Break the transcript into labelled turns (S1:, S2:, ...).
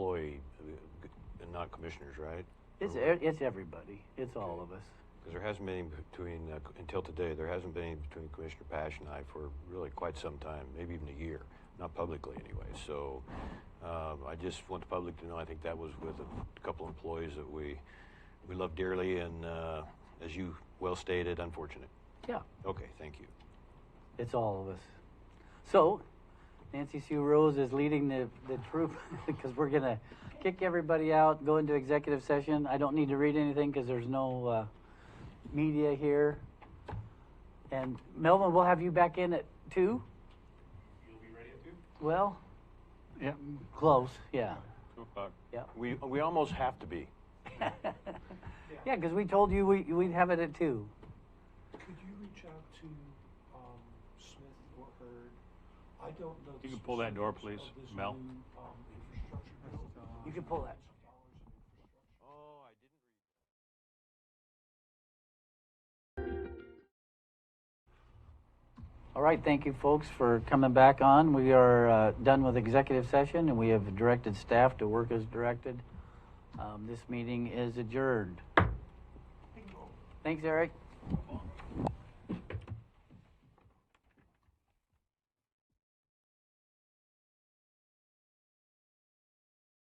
S1: uh, commissioners, right?
S2: It's, e- it's everybody. It's all of us.
S1: Because there hasn't been between, uh, until today, there hasn't been between Commissioner Pash and I for really quite some time, maybe even a year, not publicly anyway. So um, I just want the public to know, I think that was with a couple employees that we, we love dearly and, uh, as you well stated, unfortunate.
S2: Yeah,
S1: Okay, thank you.
S2: it's all of us. So, Nancy Sue Rose is leading the, the troop because we're going to kick everybody out, go into executive session. I don't need to read anything because there's no uh, media here. And Melvin, we'll have you back in at 2?
S3: You'll be ready at two?
S2: Well,
S4: Yeah,
S2: close, yeah.
S4: two o'clock.
S2: Yeah.
S1: We, we almost have to be.
S2: yeah, because we told you we, we'd have it at 2.
S3: Could you reach out to, um, Smith or Heard? I don't know.
S4: You
S3: the
S4: can pull that door,
S3: specifics
S4: please,
S3: of this
S4: Mel.
S3: new, um, infrastructure bill.
S2: You can pull that.
S1: Oh, I didn't.
S2: All right, thank you, folks, for coming back on. We are uh, done with executive session, and we have directed staff to work as directed. Um, This meeting is adjourned. Thanks, Eric.